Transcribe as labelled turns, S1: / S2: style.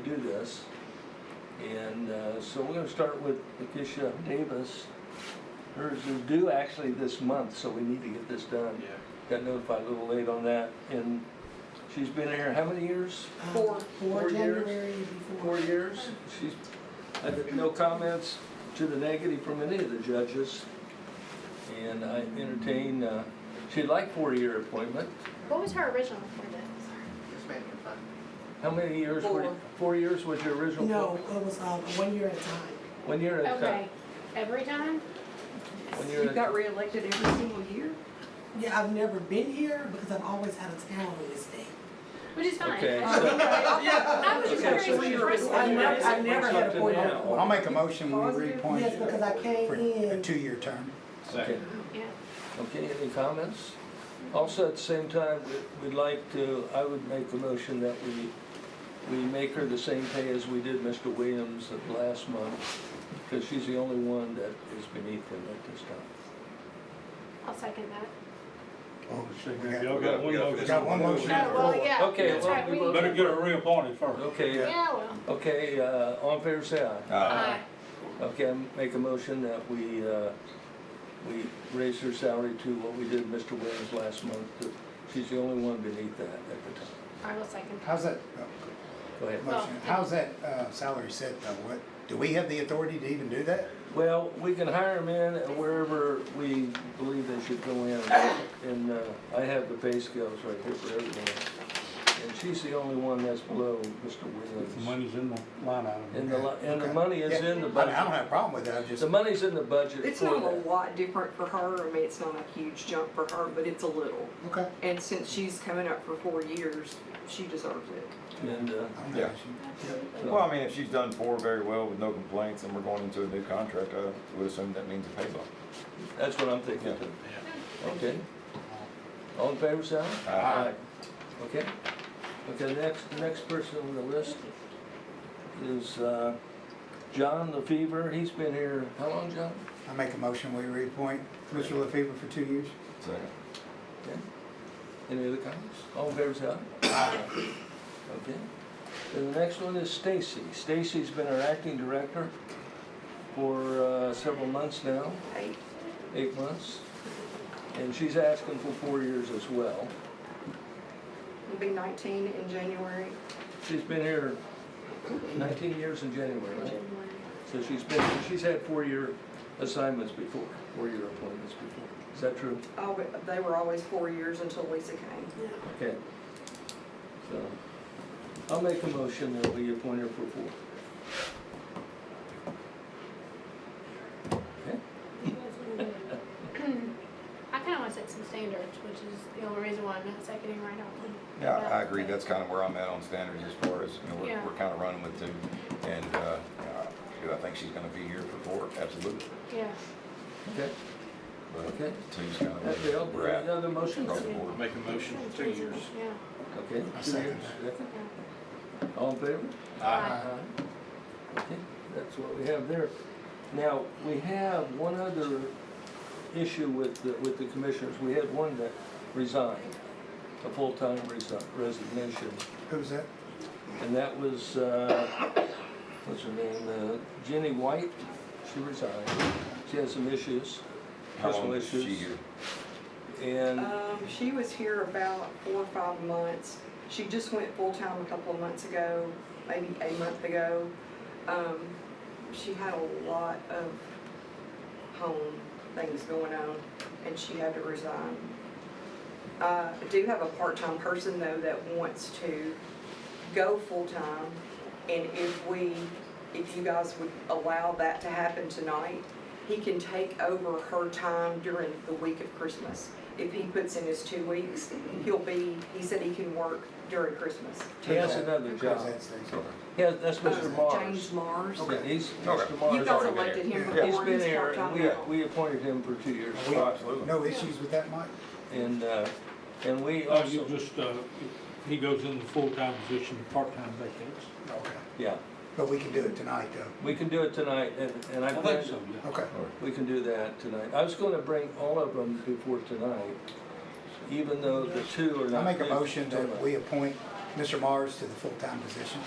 S1: do this. And uh, so we're gonna start with Lakeisha Davis. Hers is due actually this month, so we need to get this done. Got notified a little late on that, and she's been here how many years?
S2: Four.
S1: Four
S2: Four
S1: years.
S2: January
S1: Four
S2: before.
S1: years. She's, I have no comments to the negative from any of the judges. And I entertain, uh, she'd like four-year appointment.
S3: What was her original appointment?
S4: Just making fun.
S1: How many years were,
S2: Four.
S1: four years was your original?
S2: No,
S1: appointment?
S2: it was, um, one year at a time.
S1: One year at a
S3: Okay,
S1: time?
S3: every time?
S1: One year
S5: You
S1: at a
S5: got reelected every single year?
S2: Yeah, I've never been here because I've always had a town on this day.
S3: Which is fine.
S1: Okay,
S3: I
S1: so-
S3: I was
S1: Okay,
S3: just curious
S1: so
S3: what your
S1: you're-
S3: first
S2: I
S3: one
S2: never,
S3: was.
S2: I never had a point
S1: Up to now.
S2: of.
S6: I'll make a motion when we reappoint
S2: Yes, because I came
S6: for a
S2: in,
S6: two-year term.
S1: Okay,
S3: Yeah.
S1: okay, any comments? Also, at the same time, we- we'd like to, I would make the motion that we, we make her the same pay as we did Mr. Williams of last month, because she's the only one that is beneath him at this time.
S3: I'll second that.
S6: Oh,
S7: Y'all got one
S6: We
S7: motion.
S6: got one motion.
S3: Oh, well,
S6: before.
S3: yeah,
S1: Okay,
S3: that's
S1: well,
S3: right,
S1: we
S3: we
S1: will-
S3: need
S7: Better
S3: to.
S7: get her reappointed first.
S1: Okay, uh,
S3: Yeah, well.
S1: okay, uh, all in favor, say aye.
S3: Aye.
S1: Okay, I make a motion that we, uh, we raise her salary to what we did Mr. Williams last month. She's the only one beneath that at the time.
S3: I will second.
S6: How's that,
S1: Go ahead.
S6: oh, motion, how's that uh, salary set though? What, do we have the authority to even do that?
S1: Well, we can hire them in at wherever we believe they should go in. And uh, I have the pay scales right here for everyone. And she's the only one that's below Mr.
S7: The
S1: Williams.
S7: money's in the line item.
S1: And the, li- and the money is in the
S6: I mean, I don't
S1: budget.
S6: have a problem with that, I'm just,
S1: The money's in the budget
S5: It's
S1: for
S5: not a
S1: that.
S5: lot different for her, I mean, it's not a huge jump for her, but it's a little.
S6: okay.
S5: And since she's coming up for four years, she deserves it.
S1: And, uh,
S6: I don't
S8: Yeah.
S6: have issue.
S3: Absolutely.
S8: Well, I mean, if she's done four very well with no complaints and we're going into a new contract, I would assume that means a pay bump.
S1: that's what I'm thinking too. Okay? All in favor, Sal?
S8: Aye.
S1: Okay? Okay, next, next person on the list is uh, John LaFever. He's been here, how long, John?
S6: I make a motion, we reappoint Mr. LaFever for two years.
S8: Second.
S1: Okay. Any other comments? All in favor, say aye. Okay. And the next one is Stacy. Stacy's been our acting director for uh, several months now,
S5: Hey,
S1: eight months. And she's asking for four years as well.
S5: it'll be nineteen in January.
S1: She's been here nineteen years in January, right?
S3: January.
S1: So she's been, she's had four-year assignments before, four-year appointments before. Is that true?
S5: Oh, but they were always four years until Lisa came.
S2: yeah,
S1: Okay. So, I'll make a motion that we appoint her for four.
S3: I kinda wanna set some standards, which is the only reason why I'm not seconding right now.
S8: Yeah, I agree. That's kind of where I'm at on standards as far as, you know,
S3: Yeah.
S8: we're, we're kind of running with two. And, uh, uh, do I think she's going to be here for four? Absolutely.
S3: Yeah.
S1: Okay?
S8: But
S1: Okay.
S8: two's kind of
S1: That's the
S8: where we're at.
S1: other motion.
S8: across the board.
S7: Make a motion for two years.
S3: Yeah.
S1: Okay.
S6: I
S1: two
S6: second
S1: years, yeah. All in favor?
S3: Aye.
S8: Uh-huh.
S1: Okay, that's what we have there. Now, we have one other issue with, the- with the commissioners. We had one that resigned, a full-time resi- resignation.
S6: Who was that?
S1: And that was, uh, what's her name, uh, Jenny White, she resigned. She had some issues,
S8: How
S1: personal
S8: long is she
S1: issues.
S8: here?
S1: and,
S5: Um, she was here about four or five months. She just went full-time a couple of months ago, maybe a month ago. Um, she had a lot of home things going on, and she had to resign. Uh, I do have a part-time person, though, that wants to go full-time, and if we, if you guys would allow that to happen tonight, he can take over her time during the week of Christmas. If he puts in his two weeks, he'll be, he said he can work during Christmas.
S1: He has another
S6: Who's
S1: job.
S6: that, Stacy?
S8: Okay.
S1: yeah, that's Mr.
S5: Uh, James
S1: Mars.
S5: Mars.
S1: Yeah, He's,
S8: Okay.
S1: Mr.
S5: You
S1: Mars,
S5: guys
S8: already been
S5: elected him
S8: here.
S5: before.
S1: he's been
S5: He's
S1: here, and
S5: part-time
S1: we,
S5: now.
S1: we appointed him for two years.
S8: Oh, absolutely.
S6: No issues with that, Mike?
S1: And, uh, and we
S7: Also,
S1: also,
S7: just, uh, if he goes in the full-time position, part-time vacates.
S6: Okay.
S1: yeah,
S6: But we can do it tonight though.
S1: we can do it tonight, and, and I
S7: I think
S1: plan,
S7: so, yeah.
S6: Okay.
S1: we can do that tonight. I was gonna bring all of them before tonight, even though the two are
S6: I
S1: not.
S6: make a
S1: there
S6: motion that
S1: tonight.
S6: we appoint Mr. Mars to the full-time position.